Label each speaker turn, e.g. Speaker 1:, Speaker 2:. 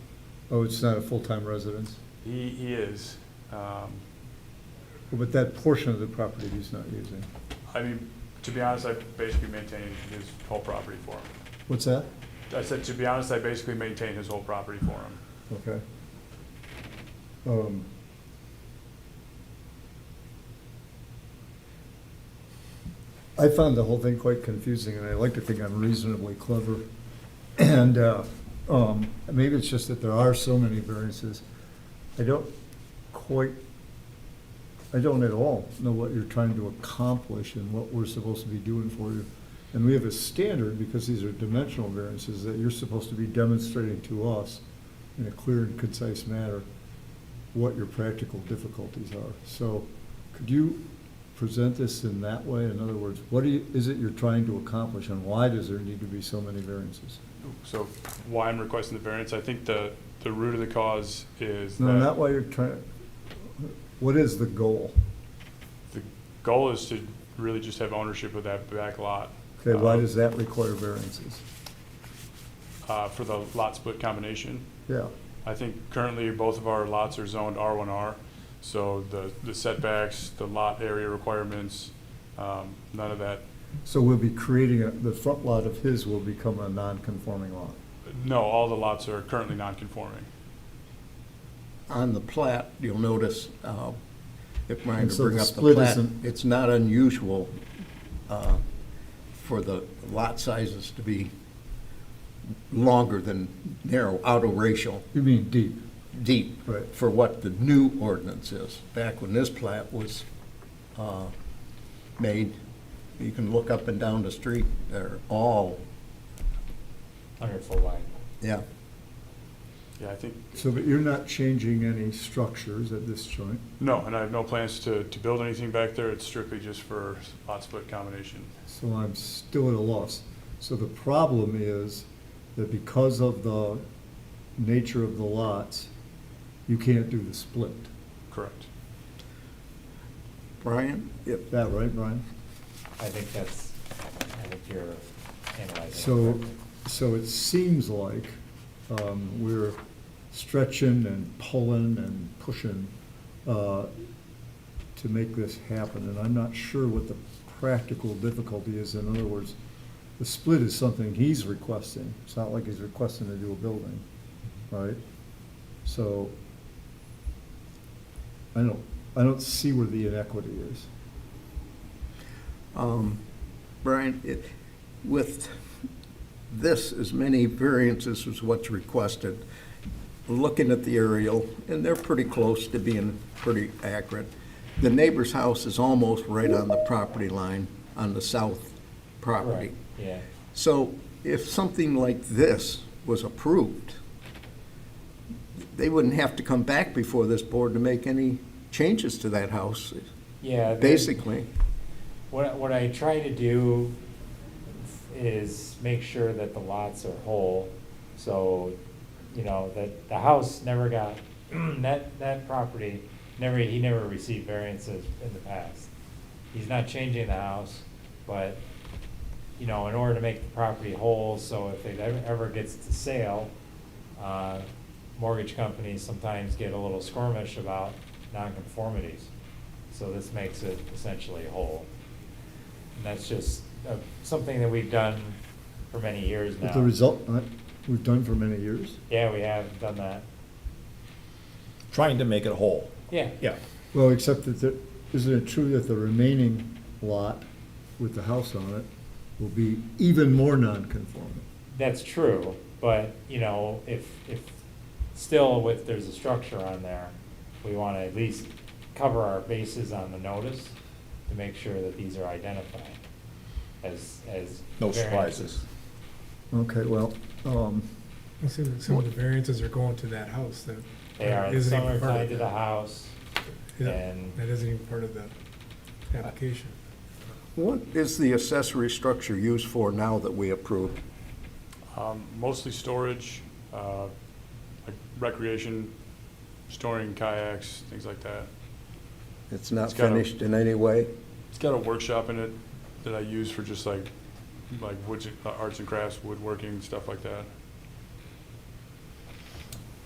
Speaker 1: Oh, it's not a full-time residence,
Speaker 2: He, he is. Um,
Speaker 1: but that portion of the property he's not using.
Speaker 2: I mean, to be honest, I basically maintain his whole property for him.
Speaker 1: What's that?
Speaker 2: I said, to be honest, I basically maintain his whole property for him.
Speaker 1: Okay. Um, I found the whole thing quite confusing, and I like to think I'm reasonably clever. And uh, um, maybe it's just that there are so many variances. I don't quite, I don't at all know what you're trying to accomplish and what we're supposed to be doing for you. And we have a standard, because these are dimensional variances, that you're supposed to be demonstrating to us in a clear and concise manner what your practical difficulties are. So could you present this in that way? In other words, what do you- is it you're trying to accomplish and why does there need to be so many variances?
Speaker 2: So why I'm requesting the variance, I think the, the root of the cause is
Speaker 1: No, not
Speaker 2: that
Speaker 1: why you're trying, what is the goal?
Speaker 2: the goal is to really just have ownership of that back lot.
Speaker 1: Okay, why
Speaker 2: Uh,
Speaker 1: does that require variances?
Speaker 2: Uh, for the lot split combination.
Speaker 1: Yeah,
Speaker 2: I think currently both of our lots are zoned R1R, so the, the setbacks, the lot area requirements, um, none of that,
Speaker 1: so we'll be creating, a- the front lot of his will become a non-conforming lot.
Speaker 2: no, all the lots are currently non-conforming.
Speaker 3: On the plat, you'll notice, uh, if Brian
Speaker 1: And
Speaker 3: could
Speaker 1: so
Speaker 3: bring
Speaker 1: the
Speaker 3: up the
Speaker 1: split
Speaker 3: plat,
Speaker 1: isn't-
Speaker 3: it's not unusual uh, for the lot sizes to be longer than narrow, outer racial,
Speaker 1: You mean deep,
Speaker 3: deep,
Speaker 1: Right.
Speaker 3: for what the new ordinance is. Back when this plat was uh, made, you can look up and down the street, they're all,
Speaker 4: Hundred foot wide.
Speaker 3: yeah,
Speaker 2: Yeah, I think,
Speaker 1: so but you're not changing any structures at this joint?
Speaker 2: no, and I have no plans to, to build anything back there, it's strictly just for lot split combination.
Speaker 1: So I'm still at a loss. So the problem is that because of the nature of the lots, you can't do the split.
Speaker 2: Correct.
Speaker 3: Brian?
Speaker 1: Yep. That right, Brian?
Speaker 4: I think that's, I think you're analyzing. it
Speaker 1: So,
Speaker 4: correctly.
Speaker 1: so it seems like um, we're stretching and pulling and pushing uh, to make this happen, and I'm not sure what the practical difficulty is. In other words, the split is something he's requesting. It's not like he's requesting to do a building, right? So I don't, I don't see where the inequity is.
Speaker 3: Um, Brian, it, with this, as many variances as what's requested, looking at the aerial, and they're pretty close to being pretty accurate, the neighbor's house is almost right on the property line, on the south property.
Speaker 4: Right, yeah.
Speaker 3: So if something like this was approved, they wouldn't have to come back before this board to make any changes to that house,
Speaker 4: Yeah. the-
Speaker 3: basically.
Speaker 4: What, what I try to do is make sure that the lots are whole, so, you know, that the house never got, that, that property, never, he never received variances in the past. He's not changing the house, but, you know, in order to make the property whole, so if it ever ever gets to sale, uh, mortgage companies sometimes get a little squirmish about nonconformities. So this makes it essentially whole. And that's just uh, something that we've done for many years now.
Speaker 1: But the result, uh, we've done for many years.
Speaker 4: Yeah, we have done that.
Speaker 5: trying to make it whole.
Speaker 4: Yeah.
Speaker 5: Yeah.
Speaker 1: Well, except that, there- isn't it true that the remaining lot with the house on it will be even more non-conforming?
Speaker 4: That's true, but, you know, if, if, still with, there's a structure on there, we want to at least cover our bases on the notice to make sure that these are identified as, as.
Speaker 5: No
Speaker 4: variances.
Speaker 5: surprises.
Speaker 1: Okay, well, um,
Speaker 6: I see that some of the variances are going to that house that.
Speaker 4: They are,
Speaker 6: isn't
Speaker 4: some
Speaker 6: even
Speaker 4: are
Speaker 6: part of
Speaker 4: tied to the
Speaker 6: that.
Speaker 4: house,
Speaker 6: Yeah,
Speaker 4: and-
Speaker 6: That isn't even part of the application.
Speaker 3: What is the accessory structure used for now that we approved?
Speaker 2: Um, Mostly storage, uh, like recreation, storing kayaks, things like that.
Speaker 3: It's not
Speaker 2: It's got a-
Speaker 3: finished in any way?
Speaker 2: It's got a workshop in it that I use for just like, like woods, uh, arts and crafts, woodworking, stuff like that.